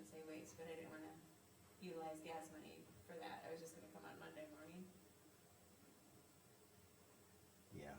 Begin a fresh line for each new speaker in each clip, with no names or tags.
but I didn't wanna utilize gas money for that, I was just gonna come on Monday morning.
Yeah.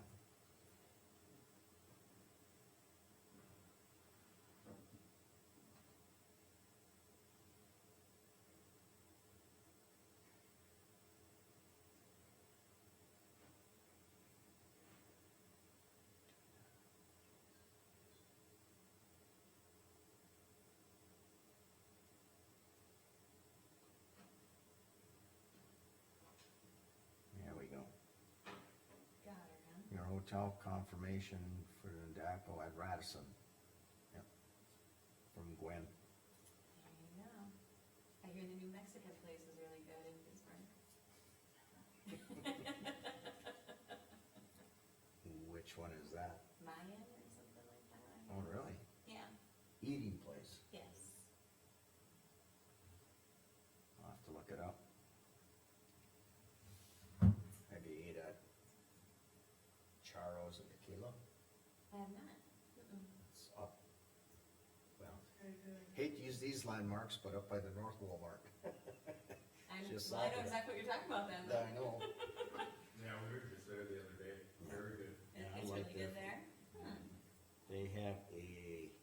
There we go.
Got her, huh?
Your hotel confirmation for the DACO at Radisson. Yep. From Gwen.
There you go. I hear the New Mexican place is really good in Pittsburgh.
Which one is that?
Mayan or something like that.
Oh, really?
Yeah,
Eating place.
yes.
I'll have to look it up. Have you ate at Charo's and Tequila?
I have not. Mm-mm.
It's up. Well, hate to use these landmarks, but up by the North Walmart.
I'm,
Just
well, I know
like it.
exactly what you're talking about then.
I know.
Yeah, we were just there the other day, very good.
Yeah, I
It's
like
really good
that.
there. Hmm.
They have a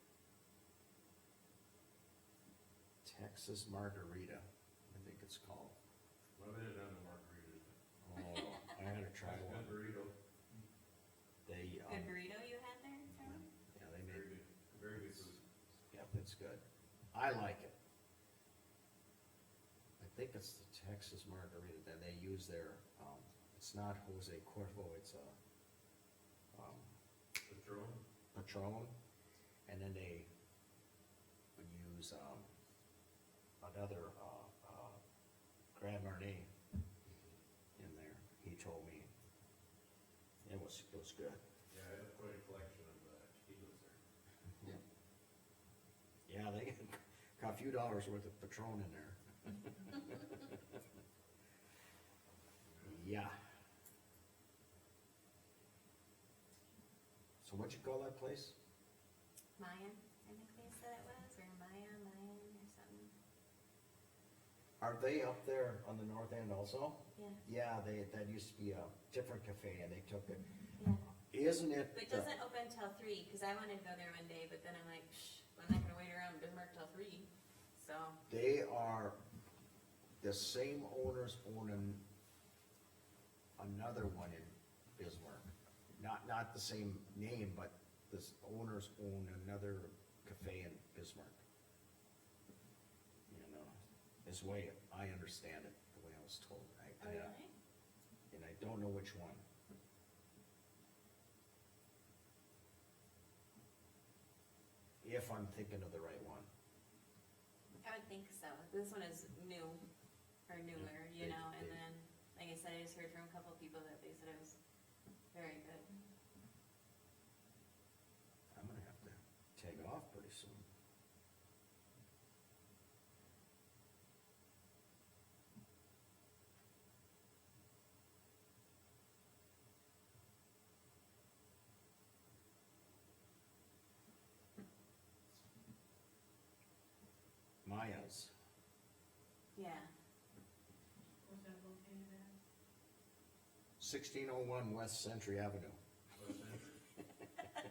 Texas margarita, I think it's called.
Well, they did have the margaritas.
Oh, I gotta try
It's a
one.
Good burrito,
They, um,
Good burrito you had there, Charlie?
yeah, they
very
made,
good, very good food.
yep, it's good. I like it. I think it's the Texas margarita that they use their, um, it's not Jose Cuervo, it's a, um,
Patron,
Patron, and then they would use, um, another, uh, uh, Grand Marnier in there, he told me. It was, it was good.
yeah, I have quite a collection of uh, tequilas there.
Yeah, they got a few dollars worth of Patron in there. Yeah. So what'd you call that place?
Mayan, I think they said it was, or Maya, Mayan or something.
Are they up there on the north end also?
Yeah,
Yeah, they, that used to be a different cafe and they took it.
yeah.
Isn't it?
But it
the-
doesn't open till three, cause I wanted to go there one day, but then I'm like, shh, I'm not gonna wait around Bismarck till three, so.
They are, the same owners owning another one in Bismarck. Not, not the same name, but this owners own another cafe in Bismarck. You know, this way I understand it, the way I was told.
Oh,
I- I- And I don't know which one. If I'm thinking of the right one.
I would think so, this one is new, or newer, you
they-
know, and
they-
then, like I said, I just heard from a couple people that they said it was very good.
I'm gonna have to take off pretty soon. Maya's,
Yeah,
Was that located at?
sixteen oh one West Century Avenue.
What's that?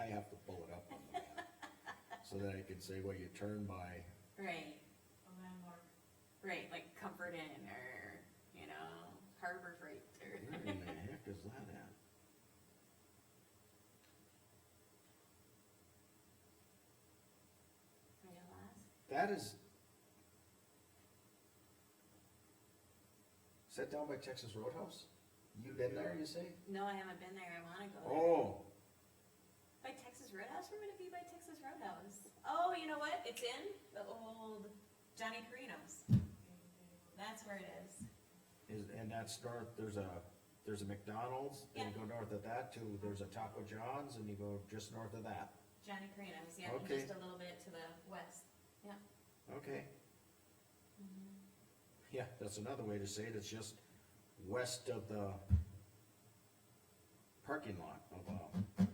I have to pull it up on the map, so that I can say, well, you turn by,
right,
A landmark.
right, like Comfort Inn, or, you know, Harbor Freight, or.
where in the heck is that at?
Are you lost?
That is. Is that down by Texas Roadhouse? You been there, you say?
No, I haven't been there, I wanna go there.
Oh,
By Texas Roadhouse, we're gonna be by Texas Roadhouse. Oh, you know what, it's in the old Johnny Carino's, that's where it is.
Oh, is, and that's north, there's a, there's a McDonald's, and you go north of that too, there's a Taco John's, and you go just north of that.
Johnny Carino's, yeah,
Okay.
just a little bit to the west.
Okay, Mm-hmm. yeah, that's another way to say it, it's just west of the parking lot of, uh,